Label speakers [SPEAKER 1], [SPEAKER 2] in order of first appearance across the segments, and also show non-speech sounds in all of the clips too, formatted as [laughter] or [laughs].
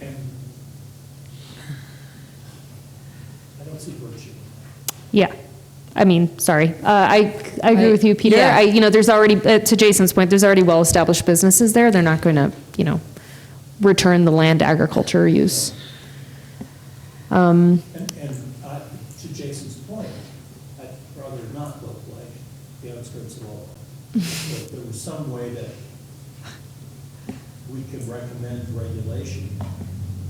[SPEAKER 1] and I don't see virtue.
[SPEAKER 2] Yeah. I mean, sorry. Uh, I, I agree
[SPEAKER 3] I-
[SPEAKER 2] with you, Peter.
[SPEAKER 3] yeah.
[SPEAKER 2] I, you know, there's already, uh, to Jason's point, there's already well-established businesses there. They're not going to, you know, return the land to agriculture use. Um,
[SPEAKER 1] And, and I, to Jason's point, I'd rather not look like the outskirts of all. If there was some way that we could recommend regulation,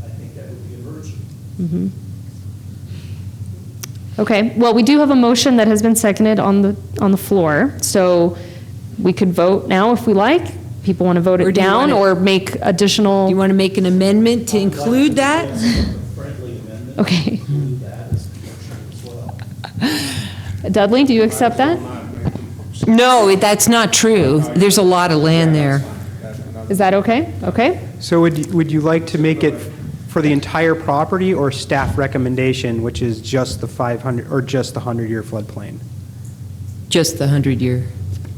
[SPEAKER 1] I think that would be a virtue.
[SPEAKER 2] mhm. Okay, well, we do have a motion that has been seconded on the, on the floor, so we could vote now if we like. People want to vote
[SPEAKER 3] Or
[SPEAKER 2] it
[SPEAKER 3] do you
[SPEAKER 2] down
[SPEAKER 3] wanna-
[SPEAKER 2] or make additional.
[SPEAKER 3] You want to make an amendment to
[SPEAKER 1] I'd like
[SPEAKER 3] include that?
[SPEAKER 1] suggest a Friendly amendment. to
[SPEAKER 2] Okay.
[SPEAKER 1] Include that as a virtue as well.
[SPEAKER 2] Dudley, do you accept that?
[SPEAKER 3] No, that's not true. There's a lot of land there.
[SPEAKER 2] Is that okay? Okay?
[SPEAKER 4] So would, you- would you like to make it for the entire property or staff recommendation, which is just the 500, or just the 100-year floodplain?
[SPEAKER 3] Just the 100-year.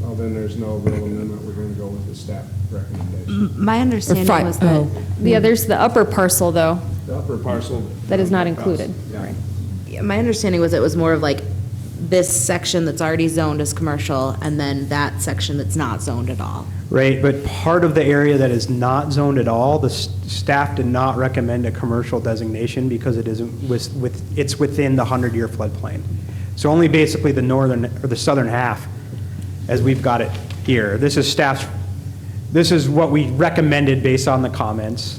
[SPEAKER 5] Well, then there's no real amendment, we're gonna go with the staff recommendation.
[SPEAKER 6] M- My understanding
[SPEAKER 3] fi-
[SPEAKER 6] was that,
[SPEAKER 3] oh.
[SPEAKER 2] Yeah, there's the upper parcel, though.
[SPEAKER 5] The upper parcel.
[SPEAKER 2] Mm. That is not included.
[SPEAKER 5] Yeah.
[SPEAKER 2] Right.
[SPEAKER 6] yeah, my understanding was it was more of like this section that's already zoned as commercial and then that section that's not zoned at all.
[SPEAKER 4] Right, but part of the area that is not zoned at all, the s- staff did not recommend a commercial designation because it isn't, with, with- it's within the 100-year floodplain. So only basically the northern, or the southern half, as we've got it here. This is staff's, this is what we recommended based on the comments.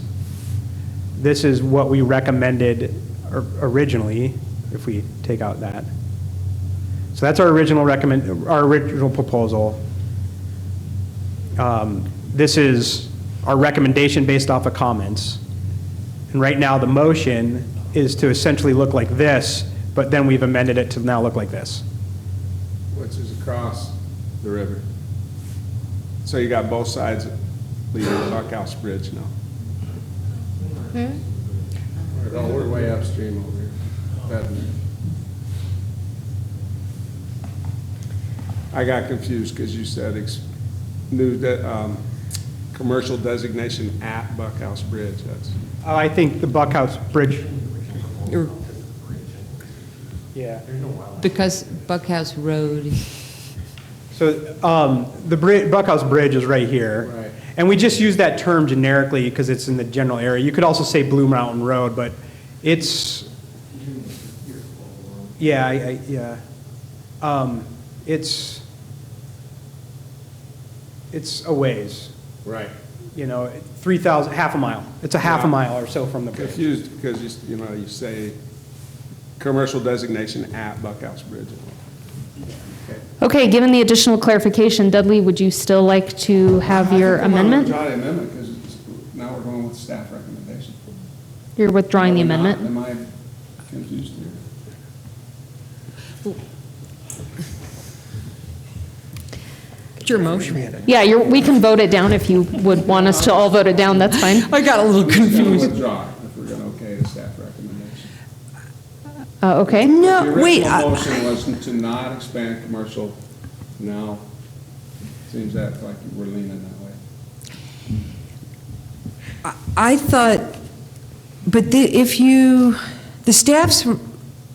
[SPEAKER 4] This is what we recommended or- originally, if we take out that. So that's our original recommend, our original proposal. Um, This is our recommendation based off of comments. And right now, the motion is to essentially look like this, but then we've amended it to now look like this.
[SPEAKER 5] Which is across the river. So you got both sides of Leader Buckhouse Bridge now. Oh, we're way upstream over here. That- I got confused because you said ex- new, de- um, commercial designation at Buckhouse Bridge, that's.
[SPEAKER 4] Uh, I think the Buckhouse Bridge,
[SPEAKER 3] Or-
[SPEAKER 4] yeah.
[SPEAKER 3] Because Buckhouse Road,
[SPEAKER 4] So um, the Bri- Buckhouse Bridge is right here.
[SPEAKER 5] Right.
[SPEAKER 4] And we just use that term generically because it's in the general area. You could also say Blue Mountain Road, but it's, yeah, I, I, yeah. Um, It's, it's a ways,
[SPEAKER 5] Right.
[SPEAKER 4] you know, 3,000, half a mile. It's a half a
[SPEAKER 5] Yeah.
[SPEAKER 4] mile or so from the bridge.
[SPEAKER 5] Confused because you, s- you know, you say commercial designation at Buckhouse Bridge.
[SPEAKER 2] Okay, given the additional clarification, Dudley, would you still like to have your amendment?
[SPEAKER 5] Draw the amendment because now we're going with staff recommendation.
[SPEAKER 2] You're withdrawing the
[SPEAKER 5] Am I-
[SPEAKER 2] amendment?
[SPEAKER 5] Am I confused here?
[SPEAKER 3] it's your motion.
[SPEAKER 2] Yeah, you're, we can vote it down if you would want us to all vote it down, that's fine.
[SPEAKER 3] I got a little
[SPEAKER 5] We're
[SPEAKER 3] confused.
[SPEAKER 5] gonna withdraw if we're going to okay the staff recommendation.
[SPEAKER 2] Uh, okay,
[SPEAKER 5] The
[SPEAKER 3] No, wait,
[SPEAKER 5] original
[SPEAKER 3] I-
[SPEAKER 5] motion was to not expand commercial. Now, seems that like we're leaning that way.
[SPEAKER 3] I- I thought, but the- if you, the staff's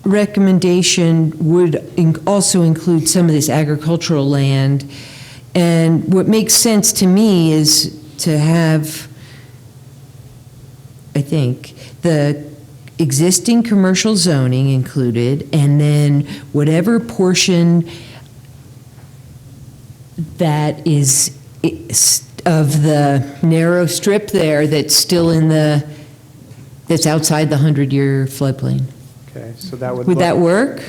[SPEAKER 3] recommendation would in- also include some of this agricultural land, and what makes sense to me is to have, I think, the existing commercial zoning included, and then whatever portion that is is of the narrow strip there that's still in the, that's outside the 100-year floodplain.
[SPEAKER 4] Okay, so that would
[SPEAKER 3] Would that
[SPEAKER 4] look,
[SPEAKER 3] work?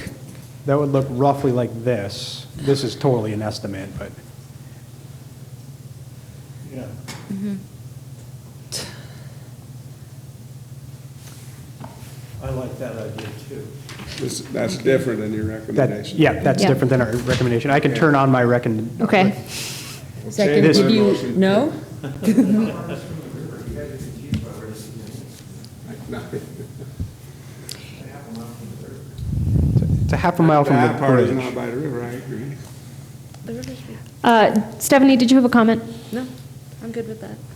[SPEAKER 4] that would look roughly like this. This is totally an estimate, but.
[SPEAKER 1] Yeah. I like that idea too.
[SPEAKER 5] This- That's different than your
[SPEAKER 4] That,
[SPEAKER 5] recommendation.
[SPEAKER 4] yeah, that's
[SPEAKER 2] Yeah.
[SPEAKER 4] different than our recommendation. I can turn on my recommend,
[SPEAKER 2] okay.
[SPEAKER 5] Second,
[SPEAKER 4] This-
[SPEAKER 5] did you- [laughs]
[SPEAKER 3] no?
[SPEAKER 4] it's a half a mile from the
[SPEAKER 5] That part is not
[SPEAKER 4] bridge.
[SPEAKER 5] by the river, I agree.
[SPEAKER 2] Uh, Stephanie, did you have a comment?
[SPEAKER 7] No, I'm good with that.